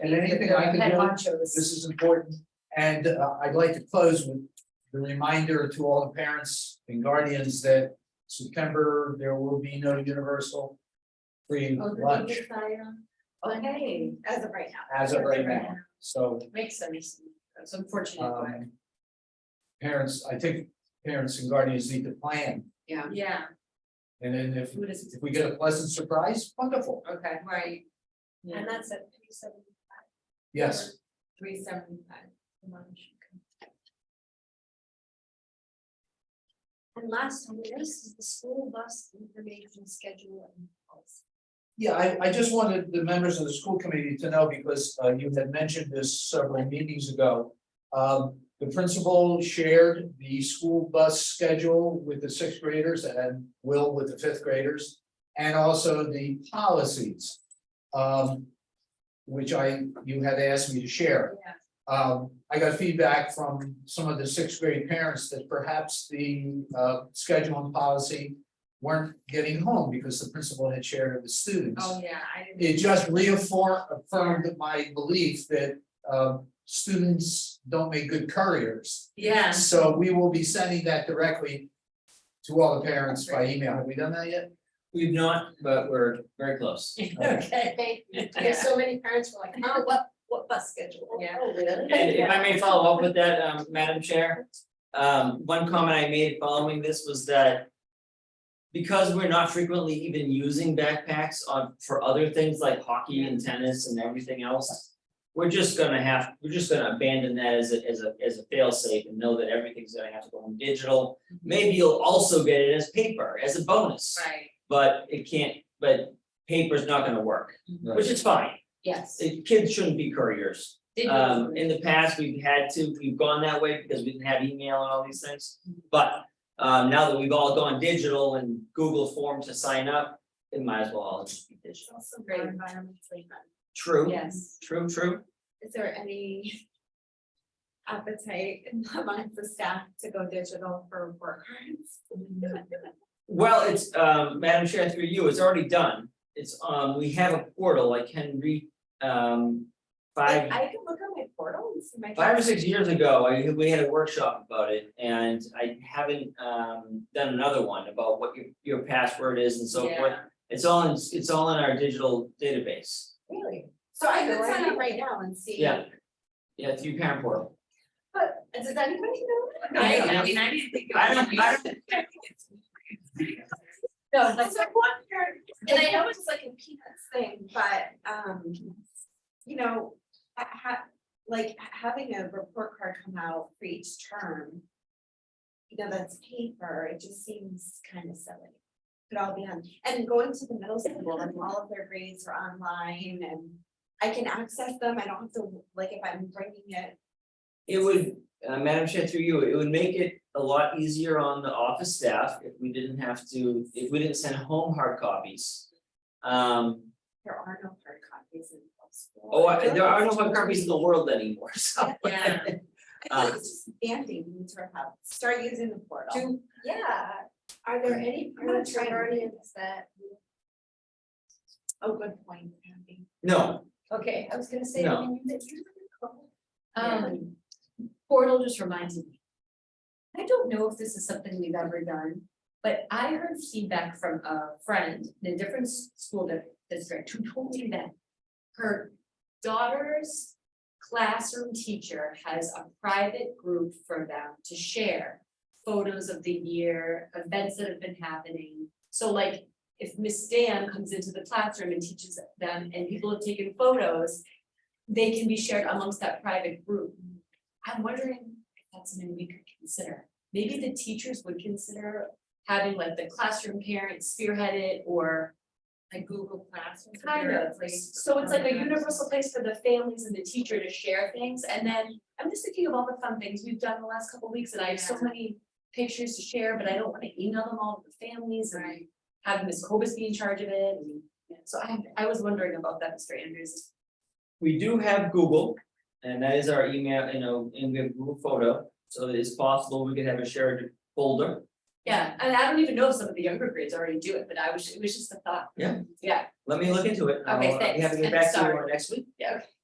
and anything I can Head do, honchos. this is important. And uh, I'd like to close with the reminder to all the parents and guardians that September, there will be no universal free Oh, lunch Okay, As of right now. as of right now, so makes sense, that's unfortunate, but, um. Parents, I think parents and guardians need to plan, yeah. Yeah, and then if Food is, if we get a pleasant surprise, wonderful, okay, right, yeah, and that's at three seventy-five. yes, Three seventy-five lunch. And last on the list is the school bus information schedule and policy. yeah, I I just wanted the members of the school committee to know, because uh you had mentioned this several meetings ago. Um, the principal shared the school bus schedule with the sixth graders and Will with the fifth graders, and also the policies. Um, which I, you had asked me to share. Yeah. Um, I got feedback from some of the sixth grade parents that perhaps the uh schedule and policy. Weren't getting home because the principal had shared it with students. Oh, yeah, I didn't. It just reaffirmed affirmed my belief that uh students don't make good couriers. Yeah. So we will be sending that directly to all the parents by email. Have we done that yet? We've not, but we're very close. Okay, thank you. There's so many parents were like, oh, what, what bus schedule? Yeah. Oh, really? And if I may follow up with that, um, Madam Chair, um, one comment I made following this was that. Because we're not frequently even using backpacks on, for other things like hockey and tennis and everything else. We're just gonna have, we're just gonna abandon that as a, as a, as a failsafe and know that everything's gonna have to go on digital. Maybe you'll also get it as paper, as a bonus, Mm-hmm. right, but it can't, but paper's not gonna work, which is fine. Mm-hmm. yes. Uh, Kids shouldn't be couriers. Digital Um, food. in the past, we've had to, we've gone that way because we didn't have email and all these things. But, um, now that we've all gone digital and Google Form to sign up, it might as well all just be digital. Also, Great. environmentally friendly. True, Yes, true, true. Is there any appetite amongst the staff to go digital for work cards? Well, it's, um, Madam Chair, through you, it's already done. It's, um, we have a portal, I can read, um, I five, I can look on my portal and see my. five or six years ago, I, we had a workshop about it and I haven't, um, done another one about what your, your password is and so forth. yeah, It's all in, it's all in our digital database. Really? So I could No, I sign think- up right now and see. Yeah. Yeah, through parent portal. But does anybody know? I, I mean, I didn't think. I don't, I don't, No, that's like one parent, and I know it's like a peanuts thing, but um, you know, ha- ha- like ha- having a report card come out for each term. You know, that's paper, it just seems kind of silly. Could all be on, and going to the middle school and all of their grades are online and I can access them, I don't have to, like, if I'm bringing it. it would, uh, Madam Chair, through you, it would make it a lot easier on the office staff if we didn't have to, if we didn't send home hard copies. Um, There are no hard copies in the middle school. oh, I I- feel there like are no it's hard copies in the world anymore, so. Yeah. I Uh, feel like it's just bandy, we need to have- start using the portal. Do- yeah, are there any parents or guardians that? Oh, good point, Abby. No, Okay, I was gonna say. No. Um, portal just reminds me. I don't know if this is something we've ever done, but I heard feedback from a friend in a different s- school di- district who told me that. Her daughter's classroom teacher has a private group for them to share. Photos of the year, events that have been happening, so like if Miss Dan comes into the classroom and teaches them and people have taken photos. They can be shared amongst that private group. I'm wondering if that's something we could consider. Maybe the teachers would consider having like the classroom parents spearhead it or Like Google Classroom. kind of. So it's like a universal place for the families and the teacher to share things. And then I'm just thinking of all the fun things we've done the last couple of weeks and I have so Yeah. many pictures to share, but I don't want to email them all to the families and have Ms. Cobus be in charge of it. and- So I, I was wondering about that, Mr. Andrews. we do have Google, and that is our email, you know, and we have Google Photo, so it is possible we could have a shared folder. Yeah, and I don't even know if some of the younger grades already do it, but I was, it was just a thought. Yeah. Yeah, Let me look into it. I'll- Okay, I'll be happy thanks. to get back to you Sorry. next week. yeah,